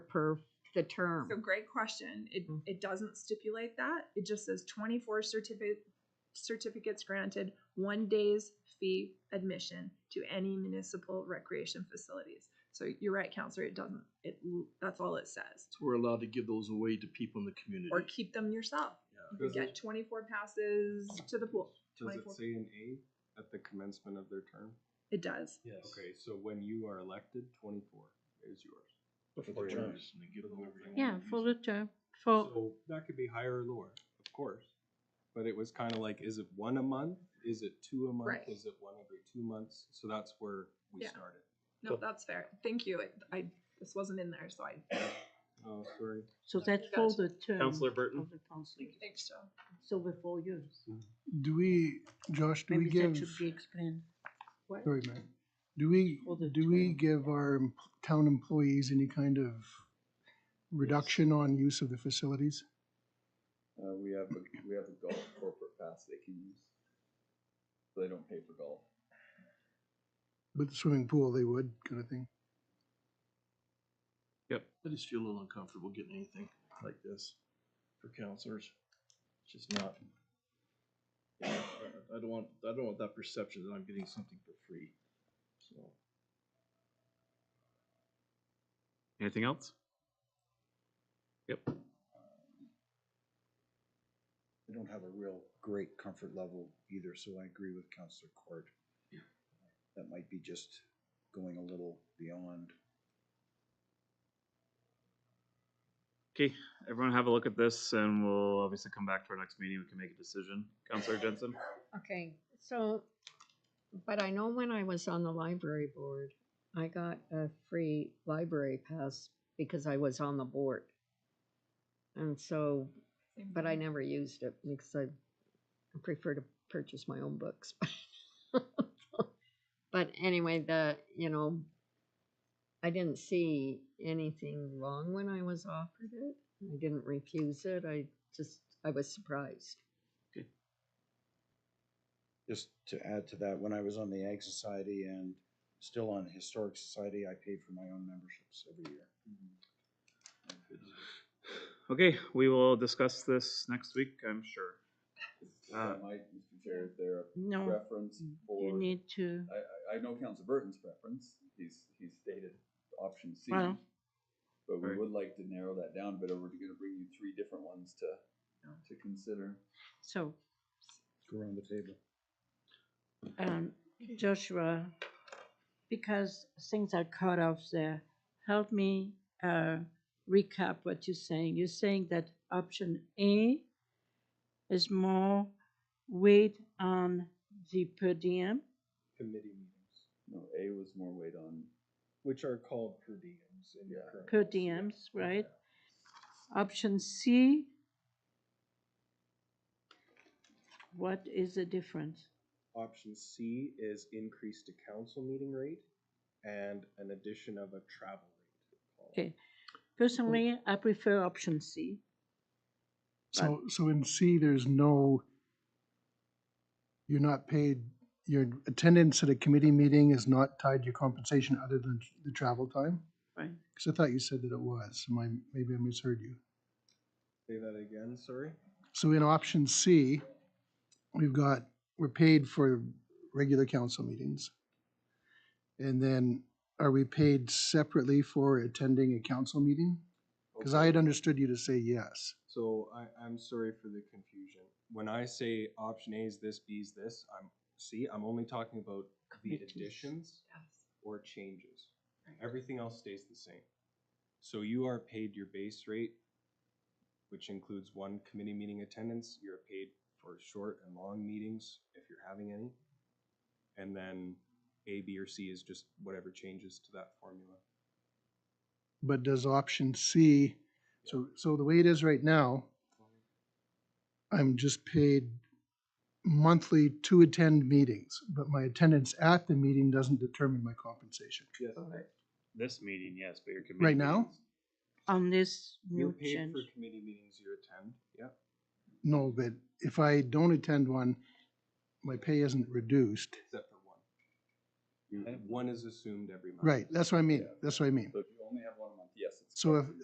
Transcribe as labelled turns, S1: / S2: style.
S1: per the term.
S2: So great question. It,
S1: Mm.
S2: it doesn't stipulate that. It just says twenty-four certificate, certificates granted, one day's fee admission to any municipal recreation facilities. So you're right, counselor, it doesn't, it, l- that's all it says.
S3: So we're allowed to give those away to people in the community.
S2: Or keep them yourself.
S3: Yeah.
S2: You could
S4: Does it-
S2: get twenty-four passes to the pool.
S4: Does
S2: 24.
S4: it say an A at the commencement of their term?
S2: It does.
S5: Yes.
S4: Okay, so when you are elected, twenty-four is yours.
S5: Before
S3: They
S5: term.
S3: just- and they give them whatever they want
S6: Yeah,
S3: to
S6: for the
S3: use.
S6: term, for,
S4: So that could be higher or lower, of course. But it was kind of like, is it one a month? Is it two a month?
S2: Right.
S4: Is it one every two months? So that's where we
S2: Yeah.
S4: started.
S2: No,
S5: Cool.
S2: that's fair. Thank you. It- I, this wasn't in there, so I,
S4: Oh, sorry.
S6: so that's
S2: Gotcha.
S6: for the term.
S7: Mm-hmm.
S5: Counselor Burton?
S6: Of the council,
S2: thanks, Joe.
S6: so we're four years.
S8: Do we, Josh, do we
S6: Maybe that
S8: give,
S6: should be explained.
S2: What?
S8: sorry, Matt, do we,
S6: For the
S8: do we
S6: term.
S8: give our em- town employees any kind of reduction on use of the facilities?
S9: Uh, we have, a we have a golf corporate pass they can use. So they don't pay for golf.
S8: With the swimming pool, they would, kind of thing.
S3: Yep, I just feel a little uncomfortable getting anything like this for counselors. It's just not. I I don't want, I don't want that perception that I'm getting something for free, so.
S5: Anything else? Yep.
S10: I don't have a real great comfort level either, so I agree with Counselor Court. That might be just going a little beyond.
S5: Okay, everyone have a look at this and we'll obviously come back to our next meeting. We can make a decision. Counselor Jensen?
S7: Okay, so, but I know when I was on the library board, I got a free library pass because I was on the board. And so,
S2: Same
S7: but I
S2: thing.
S7: never used it because I prefer to purchase my own books. But anyway, the, you know, I didn't see anything wrong when I was offered it. I didn't refuse it. I just, I was surprised.
S10: Just to add to that, when I was on the Ag Society and still on Historic Society, I paid for my own memberships every year.
S3: Mm-hmm.
S5: Okay, we will discuss this next week, I'm sure.
S9: If
S5: Uh,
S9: I might, Mr. Chair, is there a
S6: No,
S9: preference
S6: Oh. you
S9: for,
S6: need to,
S9: I, I, I know Council Burton's preference, he's, he's stated option C.
S6: Well.
S9: But we
S5: Right.
S9: would like to narrow that down, but we're gonna bring you three different ones to, to consider.
S6: so,
S10: Go around the table.
S6: um, Joshua, because things are cut off there, help me, uh, recap what you're saying. You're saying that option A is more weight on the per diem?
S4: Committee meetings,
S9: No, A was more weight on,
S4: which are called per diems in your
S9: Yeah.
S4: current.
S6: per
S4: policy.
S6: diems, right? Option C, what is the difference?
S4: Option C is increase to council meeting rate and an addition of a travel rate.
S6: Okay, personally, I prefer option C.
S8: So, so in C, there's no, you're not paid, your attendance at a committee meeting is not tied to your compensation other than the travel time?
S6: Right.
S8: Because I thought you said that it was, Am I- maybe I misheard you.
S4: Say that again, sorry?
S8: So in option C, we've got, we're paid for regular council meetings. And then are we paid separately for attending a council meeting? Because I
S4: Okay.
S8: had understood you to say yes.
S4: So I, I'm sorry for the confusion. When I say option A is this, B is this, I'm, see, I'm only talking about the
S6: Committees.
S4: additions
S2: Yes.
S4: or changes. Everything else stays the same. So you are paid your base rate, which includes one committee meeting attendance. You're paid for short and long meetings, if you're having any. And then A, B, or C is just whatever changes to that formula.
S8: But does option C, so, so the way it is right now, I'm just paid monthly to attend meetings, but my attendance at the meeting doesn't determine my compensation.
S4: Yes.
S5: This meeting, yes, but your committee.
S8: Right now?
S5: meetings-
S6: On this
S4: You're
S6: new
S4: paid
S6: change,
S4: for committee meetings you attend, yep.
S8: No, but if I don't attend one, my pay isn't reduced.
S4: except for one. You- One is assumed every month.
S8: Right, that's what I mean, that's what I mean.
S9: so if you only have one a month, yes, it's.
S8: So if,